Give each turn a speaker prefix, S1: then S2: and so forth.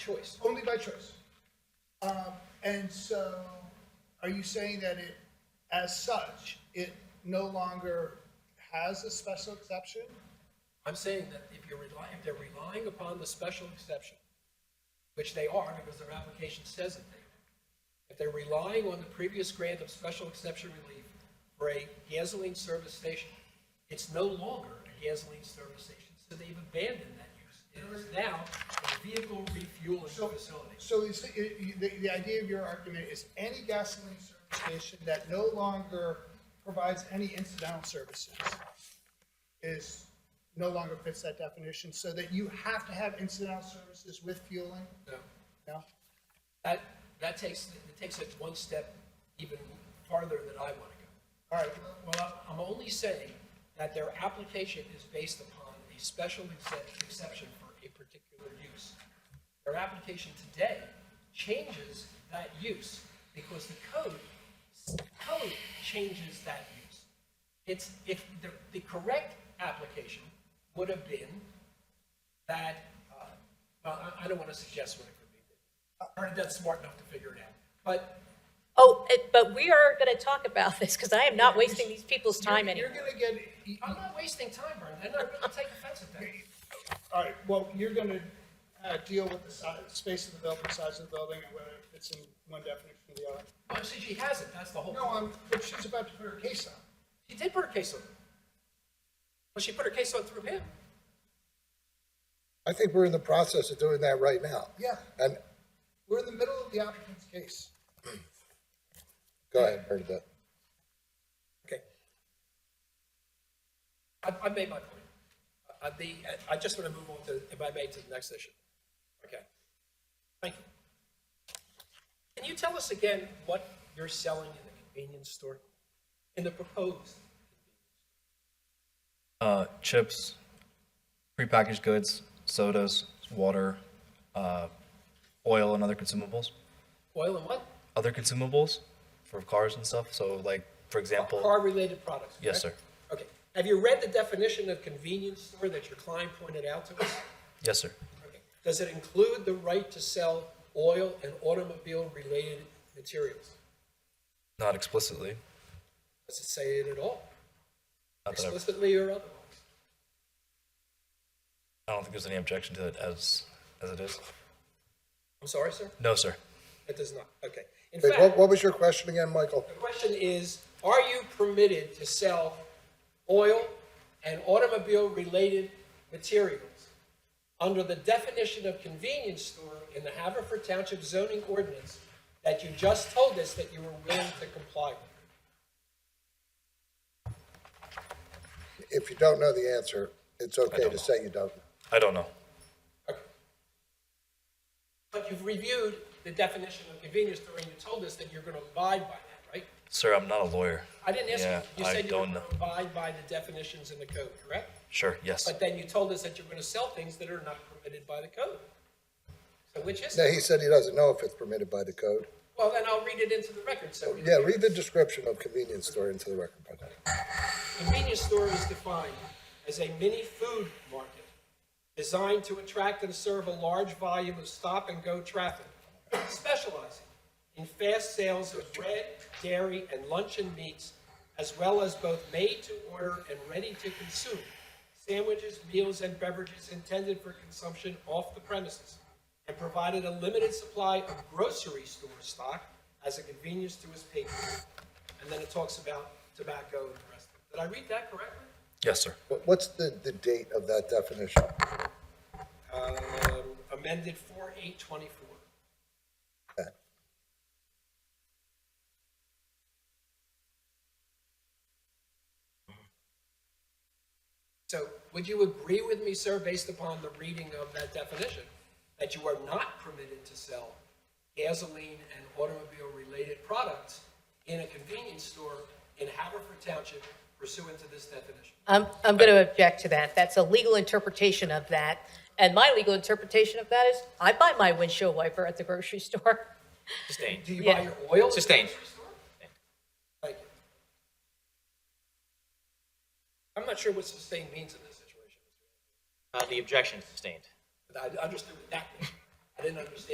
S1: choice, only by choice. Um, and so, are you saying that it, as such, it no longer has a special exception?
S2: I'm saying that if you're relying, if they're relying upon the special exception, which they are because their application says that they are, if they're relying on the previous grant of special exception relief for a gasoline service station, it's no longer a gasoline service station, so they've abandoned that use. It is now a vehicle refueling facility.
S1: So is, it- it- the, the idea of your argument is any gasoline service station that no longer provides any incidental services is, no longer fits that definition, so that you have to have incidental services with fueling?
S2: So
S1: No?
S2: That, that takes, it takes it one step even farther than I want to
S1: All
S2: go.
S1: right,
S2: Well, I'm- I'm only saying that their application is based upon a special exce- exception for a particular use. Their application today changes that use because the code, the code changes that use. It's, if, the, the correct application would have been that, uh, well, I, I don't want to suggest what it could be. Ernie that's smart enough to figure it out, but
S3: Oh, eh, but we are going to talk about this because I am not wasting these people's time
S1: you're, you're
S3: anymore.
S1: gonna get, e, you-
S2: I'm not wasting time, Ernie, and I really take offense at that.
S1: All right, well, you're gonna uh, deal with the size, space of the building, size of the building, and whether it fits in one definition or the other.
S2: Well, see, she hasn't, that's the whole.
S1: No, I'm, but she's about to put her case on.
S2: She did put her case on. Well, she put her case on through him.
S4: I think we're in the process of doing that right now.
S1: Yeah,
S4: And,
S1: we're in the middle of the applicant's case.
S4: go ahead, Bernadette.
S2: Okay. I, I made my point. Uh, the, I just want to move on to, if I may, to the next issue. Okay. Thank you. Can you tell us again what you're selling in the convenience store? In the proposed?
S5: Uh, chips, prepackaged goods, sodas, water, uh, oil, and other consumables.
S2: Oil and what?
S5: Other consumables for cars and stuff. So, like for example,
S2: Car-related products?
S5: Yes,
S2: correct? Okay. Have you read the definition of convenience store that your client pointed out to us?
S5: yes, sir.
S2: Okay. Does it include the right to sell oil and automobile-related materials?
S5: Not explicitly.
S2: Does it say it at all,
S5: Not that I,
S2: explicitly or otherwise?
S5: I don't think there's any objection to it as as it is.
S2: I'm sorry, sir,
S5: No, sir.
S2: it does not, okay. In
S4: Wait, what,
S2: fact,
S4: what was your question again, Michael?
S2: the question is, are you permitted to sell oil and automobile-related materials under the definition of convenience store in the Haverford Township zoning ordinance that you just told us that you were willing to comply with?
S4: If you don't know the answer, it's okay
S5: don't
S4: to
S5: know.
S4: say you don't. know.
S5: I don't know.
S2: Okay. But you've reviewed the definition of convenience store and you told us that you're going to abide by that, right?
S5: Sir, I'm not a lawyer.
S2: I didn't ask
S5: Yeah,
S2: you, you
S5: I
S2: said you were going
S5: don't know.
S2: to abide by the definitions in the code, correct?
S5: Sure, yes.
S2: But then you told us that you're going to sell things that are not permitted by the code. So which is,
S4: No,
S2: it?
S4: he said he doesn't know if it's permitted by the code.
S2: well, then I'll read it into the record, so.
S4: Yeah, read the description of convenience store into the record, by
S2: Convenience store is defined as a mini food market designed to attract and serve a large volume of stop-and-go traffic, specializing in fast sales of bread, dairy, and luncheon meats, as well as both made-to-order and ready-to-consume sandwiches, meals, and beverages intended for consumption off the premises, and provided a limited supply of grocery store stock as a convenience to its patrons. And then it talks about tobacco and the rest of it. Did I read that correctly?
S5: Yes, sir.
S4: What- What's the, the date of that definition?
S2: Um, amended four eight twenty-four.
S4: Okay.
S2: So would you agree with me, sir, based upon the reading of that definition, that you are not permitted to sell gasoline and automobile-related products in a convenience store in Haverford Township pursuant to this definition?
S3: I'm, I'm going to object to that. That's a legal interpretation of that. And my legal interpretation of that is I buy my windshield wiper at the grocery store.
S6: Sustained.
S2: Do you buy
S3: Yeah.
S2: your oil? at the
S6: Sustained.
S2: grocery store? Thank you. I'm not sure what sustained means in this situation.
S6: Uh, the objection is sustained.
S2: But I understood what that meant. I didn't understand